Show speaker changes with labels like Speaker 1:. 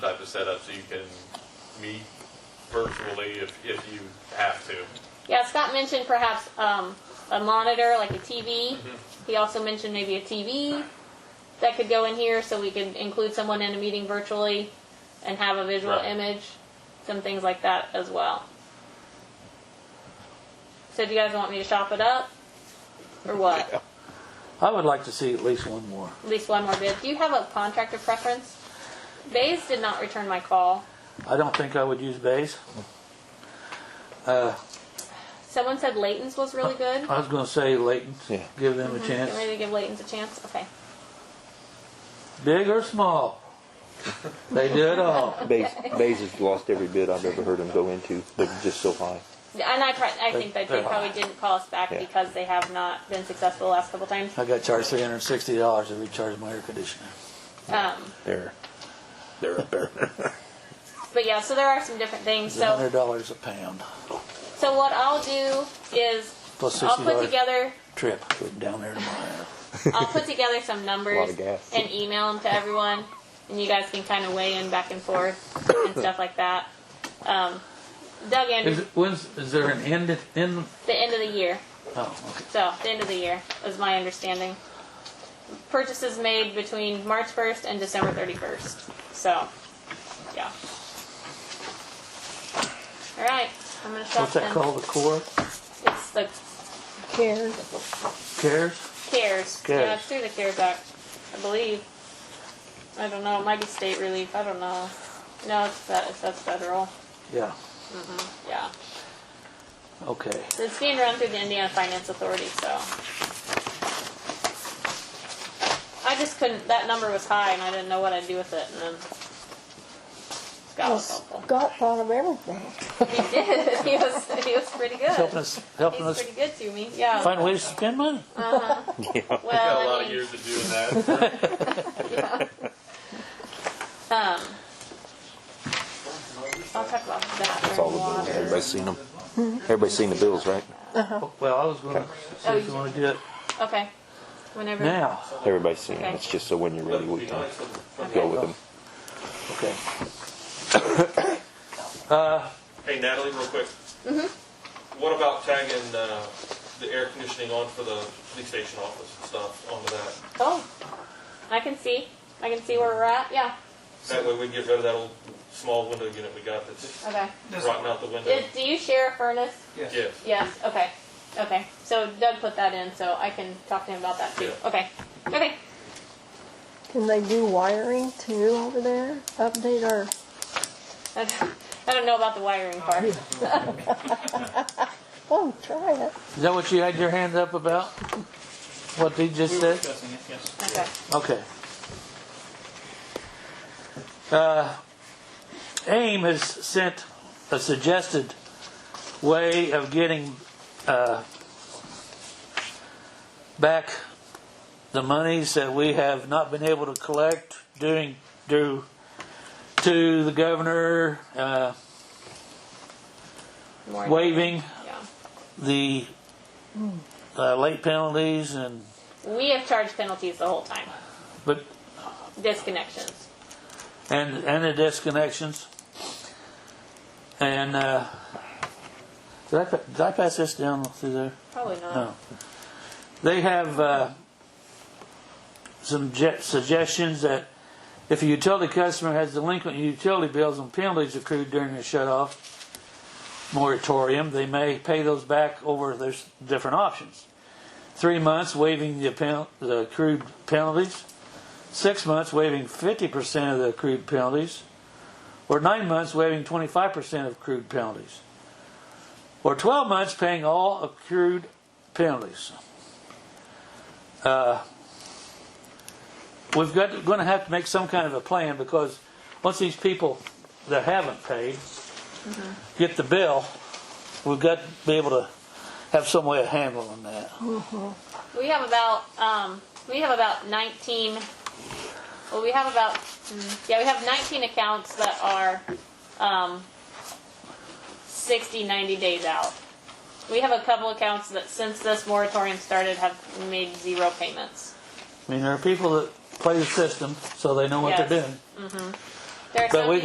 Speaker 1: to set up so you can meet virtually if, if you have to.
Speaker 2: Yeah, Scott mentioned perhaps um, a monitor, like a TV. He also mentioned maybe a TV that could go in here so we could include someone in a meeting virtually and have a visual
Speaker 1: Right.
Speaker 2: image, some things like that as well. So, do you guys want me to shop it up? Or what?
Speaker 3: I would like to see at least one more.
Speaker 2: At least one more bid. Do you have a contractor preference? Bays did not return my call.
Speaker 3: I don't think I would use Bays.
Speaker 2: Someone said Layton's was really good.
Speaker 3: I was going to say Leighton.
Speaker 4: Yeah.
Speaker 3: Give them a
Speaker 2: Get ready
Speaker 3: chance.
Speaker 2: to give Layton's a chance? Okay.
Speaker 3: Big or small, they do it all.
Speaker 4: Bays, Bays has lost every bid I've ever heard them go into. They're just so high.
Speaker 2: And I, pri- I think that they
Speaker 3: They're
Speaker 2: probably didn't call us back
Speaker 4: Yeah.
Speaker 2: because they have not been successful the last couple times.
Speaker 3: I got charged three hundred and sixty dollars to recharge my air conditioner.
Speaker 2: Um,
Speaker 4: They're, they're up there.
Speaker 2: but yeah, so there are some different things.
Speaker 3: It's a
Speaker 2: So,
Speaker 3: hundred dollars a pound
Speaker 2: so what I'll do is
Speaker 3: plus
Speaker 2: I'll
Speaker 3: sixty
Speaker 2: put
Speaker 3: dollars
Speaker 2: together
Speaker 3: trip down there to tomorrow.
Speaker 2: I'll put together some
Speaker 4: Lot
Speaker 2: numbers
Speaker 4: of gas.
Speaker 2: and email them to everyone, and you guys can kind of weigh in back and forth and stuff like that. Um, Doug
Speaker 3: Is
Speaker 2: Andrews,
Speaker 3: it, when's is there an end in?
Speaker 2: the end of the year.
Speaker 3: Oh, okay.
Speaker 2: So, the end of the year is my understanding. Purchases made between March 1st and December 31st. So, yeah. All right, I'm gonna stop
Speaker 3: What's that
Speaker 2: then.
Speaker 3: called? The core
Speaker 2: It's the
Speaker 3: cares.
Speaker 2: CARES. Yeah,
Speaker 3: Cares.
Speaker 2: it's through the CARES Act, I believe. I don't know. It might be state relief. I don't know. No, it's that. It's, that's federal.
Speaker 3: Yeah.
Speaker 2: Yeah.
Speaker 3: Okay.
Speaker 2: So it's being run through the Indiana Finance Authority, so. I just couldn't, that number was high and I didn't know what I'd do with it and then Scott
Speaker 5: Well,
Speaker 2: was helpful.
Speaker 5: Scott thought of everything.
Speaker 2: He did, he was, he was pretty
Speaker 3: It's helping
Speaker 2: good.
Speaker 3: us. Helping
Speaker 2: He's
Speaker 3: us
Speaker 2: pretty good to me, yeah.
Speaker 3: find ways to spend money.
Speaker 1: Got a
Speaker 2: Well,
Speaker 1: lot of
Speaker 2: I mean,
Speaker 1: years of doing that.
Speaker 2: um, I'll talk about that
Speaker 4: It's
Speaker 2: during
Speaker 4: all the bills.
Speaker 2: water.
Speaker 4: Everybody's seen them. Everybody's seen the bills, right?
Speaker 3: Well, I was going to see if you want to do it
Speaker 2: Okay, whenever.
Speaker 3: now.
Speaker 4: Everybody's seen them. It's just so when you're ready, we can go with them.
Speaker 3: Okay. Uh,
Speaker 6: Hey Natalie, real quick.
Speaker 2: Mm-hmm.
Speaker 6: What about tagging uh, the air conditioning on for the police station office and stuff onto that?
Speaker 2: Oh, I can see, I can see where we're at, yeah,
Speaker 6: That way we can get rid of that old small window unit we got that's
Speaker 2: okay.
Speaker 6: rotting out the window.
Speaker 2: Is- Do you share a furnace?
Speaker 6: Yes.
Speaker 2: Yes, okay, okay. So Doug put that in, so I can talk to him about that too.
Speaker 6: Yeah.
Speaker 2: Okay, okay.
Speaker 5: Can they do wiring too over there? Update our,
Speaker 2: I don't- I don't know about the wiring part.
Speaker 5: oh, try it.
Speaker 3: Is that what you had your hand up about? What he just said?
Speaker 2: Okay,
Speaker 3: Okay. Uh, AIM has sent a suggested way of getting uh, back the monies that we have not been able to collect doing due to the governor uh,
Speaker 2: More
Speaker 3: waiving
Speaker 2: Yeah.
Speaker 3: the uh, late penalties and
Speaker 2: We have charged penalties the whole time,
Speaker 3: but
Speaker 2: disconnections.
Speaker 3: and and the disconnections. And uh, did I pa- did I pass this down through there?
Speaker 2: Probably not.
Speaker 3: No. They have uh, some je- suggestions that if a utility customer has delinquent utility bills and penalties accrued during the shut-off moratorium, they may pay those back over there's different options. Three months waiving the, pen- the accrued penalties, six months waiving 50% of the accrued penalties, or nine months waiving 25% of accrued penalties, or 12 months paying all accrued penalties. Uh, We've got, going to have to make some kind of a plan because once these people that haven't paid get the bill, we've got to be able to have some way of handling that.
Speaker 2: We have about, um, we have about nineteen, well, we have about, mm, yeah, we have nineteen accounts that are, um, 60, 90 days out. We have a couple accounts that since this moratorium started have made zero payments.
Speaker 3: I mean, there are people that play the system so they know what
Speaker 2: Yes.
Speaker 3: they're doing.
Speaker 2: There are
Speaker 3: But
Speaker 2: some
Speaker 3: we